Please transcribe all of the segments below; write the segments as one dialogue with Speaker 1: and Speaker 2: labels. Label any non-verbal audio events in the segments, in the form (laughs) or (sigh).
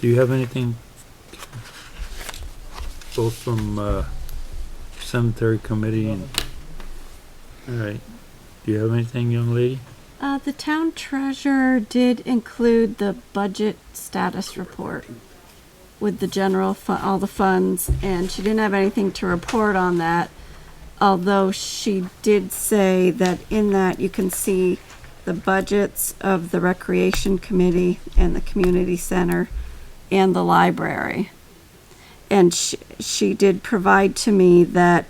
Speaker 1: Do you have anything both from, uh, cemetery committee and, all right. Do you have anything, young lady?
Speaker 2: Uh, the town treasurer did include the budget status report with the general fu- all the funds, and she didn't have anything to report on that. Although she did say that in that you can see the budgets of the recreation committee and the community center and the library. And she, she did provide to me that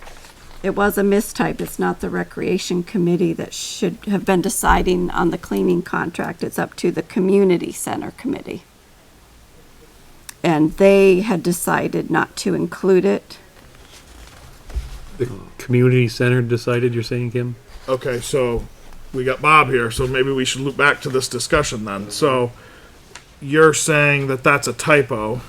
Speaker 2: it was a mistype. It's not the recreation committee that should have been deciding on the cleaning contract. It's up to the community center committee. And they had decided not to include it.
Speaker 3: The community center decided, you're saying, Kim?
Speaker 4: Okay, so we got Bob here, so maybe we should loop back to this discussion then. So you're saying that that's a typo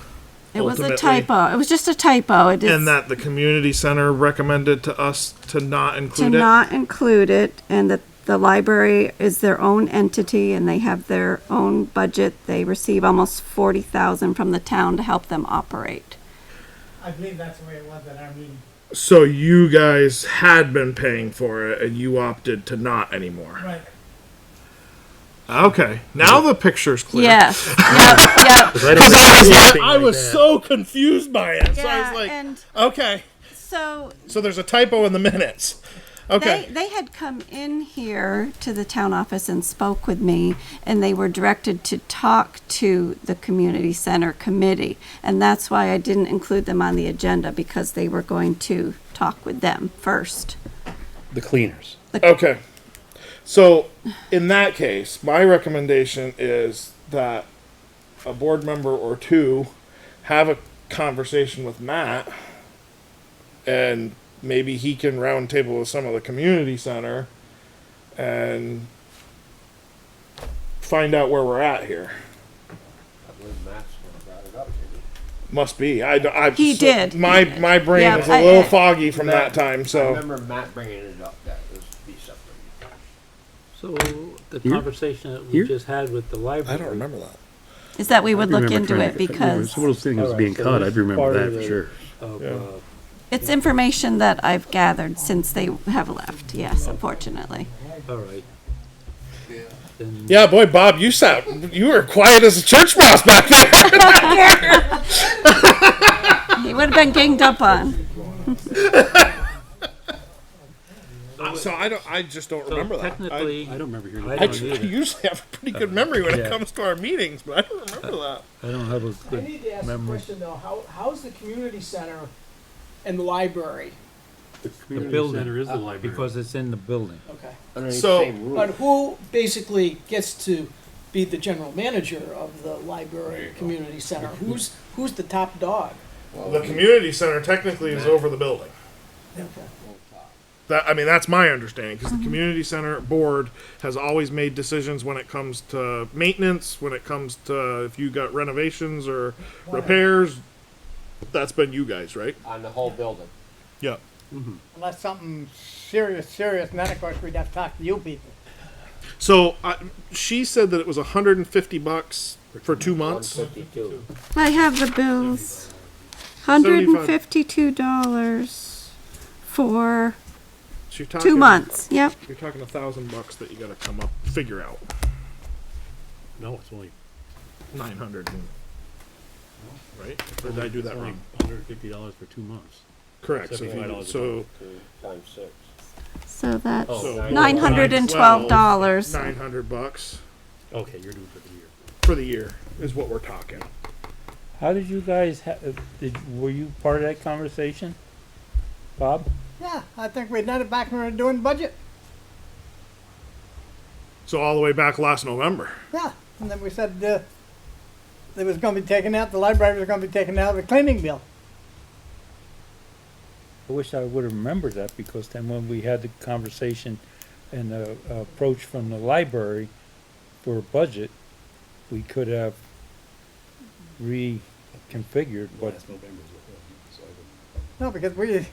Speaker 2: It was a
Speaker 4: Ultimately-
Speaker 2: typo. It was just a typo. It
Speaker 4: and
Speaker 2: is
Speaker 4: that the community center recommended to us to not
Speaker 2: to
Speaker 4: include it?
Speaker 2: not include it and that the library is their own entity and they have their own budget. They receive almost forty thousand from the town to help them operate.
Speaker 5: I believe that's the way it was at our meeting.
Speaker 4: so you guys had been paying for it and you opted to not anymore.
Speaker 5: Right.
Speaker 4: Okay, now the picture's clear.
Speaker 2: Yes,
Speaker 4: (laughs)
Speaker 2: yep, yep.
Speaker 3: Because I was not.
Speaker 4: I was so confused by it. so I was like,
Speaker 2: and
Speaker 4: okay,
Speaker 2: so
Speaker 4: so there's a typo in the minutes. Okay.
Speaker 2: They, they had come in here to the town office and spoke with me, and they were directed to talk to the community center committee. And that's why I didn't include them on the agenda, because they were going to talk with them first.
Speaker 3: The cleaners.
Speaker 4: Okay. So, in that case, my recommendation is that a board member or two have a conversation with Matt and maybe he can round table with some of the community center and find out where we're at here. Must be. I, I,
Speaker 2: He did.
Speaker 4: My,
Speaker 2: He did.
Speaker 4: my brain
Speaker 2: Yeah,
Speaker 4: was a
Speaker 2: I-
Speaker 4: little
Speaker 2: I-
Speaker 4: foggy from that
Speaker 6: Matt,
Speaker 4: time, so.
Speaker 6: I remember Matt bringing it up that it was be separate.
Speaker 1: So the
Speaker 3: Here?
Speaker 1: conversation that we
Speaker 3: Here?
Speaker 1: just had with the library.
Speaker 3: I don't remember that.
Speaker 2: Is that we would look into it, because
Speaker 3: Some of those things was being
Speaker 1: Alright, so
Speaker 3: caught,
Speaker 1: this
Speaker 3: I
Speaker 1: is
Speaker 3: remember
Speaker 1: part
Speaker 3: that
Speaker 1: of
Speaker 3: for
Speaker 1: the-
Speaker 3: sure.
Speaker 1: Of,
Speaker 4: Yeah.
Speaker 1: uh,
Speaker 2: it's information that I've gathered since they have left, yes, unfortunately.
Speaker 1: uh, all right. Then
Speaker 4: Yeah, boy, Bob, you sat. You were quiet as a church mouse back there.
Speaker 2: He would have been ganged up on.
Speaker 4: so I don't. I just don't
Speaker 1: so
Speaker 4: remember that. I,
Speaker 1: Technically,
Speaker 3: I
Speaker 1: I
Speaker 3: don't remember hearing
Speaker 1: I
Speaker 4: I
Speaker 3: that.
Speaker 1: don't
Speaker 4: tr-
Speaker 1: either.
Speaker 4: usually have a pretty good memory when
Speaker 1: Yeah.
Speaker 4: it comes to our meetings, but I don't remember that.
Speaker 1: don't have a
Speaker 5: I
Speaker 1: good
Speaker 5: need to ask a
Speaker 1: memory.
Speaker 5: question though, how, how's the community center and the library?
Speaker 1: The building is the library. Because it's in the building.
Speaker 5: Okay.
Speaker 6: Underneath
Speaker 4: So-
Speaker 6: the same
Speaker 5: But
Speaker 6: roof.
Speaker 5: who basically gets to be the general manager of the library, community center? Who's, who's the top dog?
Speaker 4: the community center technically is over the building.
Speaker 5: Okay.
Speaker 4: That I mean, that's my understanding because the community center board has always made decisions when it comes to maintenance, when it comes to if you got renovations or repairs. That's been you guys, right?
Speaker 6: on the whole building.
Speaker 4: Yeah.
Speaker 7: Unless something serious, serious, and then of course we'd have to talk to you people.
Speaker 4: So I, she said that it was 150 bucks for two months.
Speaker 6: 52.
Speaker 2: I have the bills. Hundred and fifty-two dollars for
Speaker 4: So you're talking,
Speaker 2: two months, yep.
Speaker 4: You're talking a thousand bucks that you got to come up figure out.
Speaker 3: No, it's only
Speaker 4: Nine hundred, right? Or did I do that wrong?
Speaker 3: hundred and fifty dollars for two months.
Speaker 4: Correct. So, if you-
Speaker 3: $75
Speaker 4: so
Speaker 6: Two times six.
Speaker 2: So that's
Speaker 4: So-
Speaker 2: nine hundred and twelve dollars.
Speaker 4: nine hundred bucks
Speaker 3: Okay, you're doing it for the year.
Speaker 4: for the year is what we're talking.
Speaker 8: How did you guys, ha- uh, did, were you part of that conversation? Bob?
Speaker 7: Yeah, I think we done it back when we were doing budget.
Speaker 4: So all the way back last November.
Speaker 7: Yeah, and then we said uh, it was going to be taken out. The library was going to be taken out of the cleaning bill.
Speaker 8: I wish I would have remembered that because then when we had the conversation and the uh, approach from the library for a budget, we could have reconfigured what,
Speaker 3: Last November is what it was, so I don't-
Speaker 7: No, because we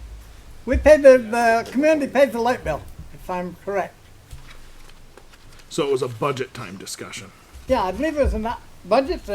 Speaker 7: we paid the, the community paid the light bill, if I'm correct.
Speaker 4: So it was a budget time discussion.
Speaker 7: Yeah, I believe it was in that budget.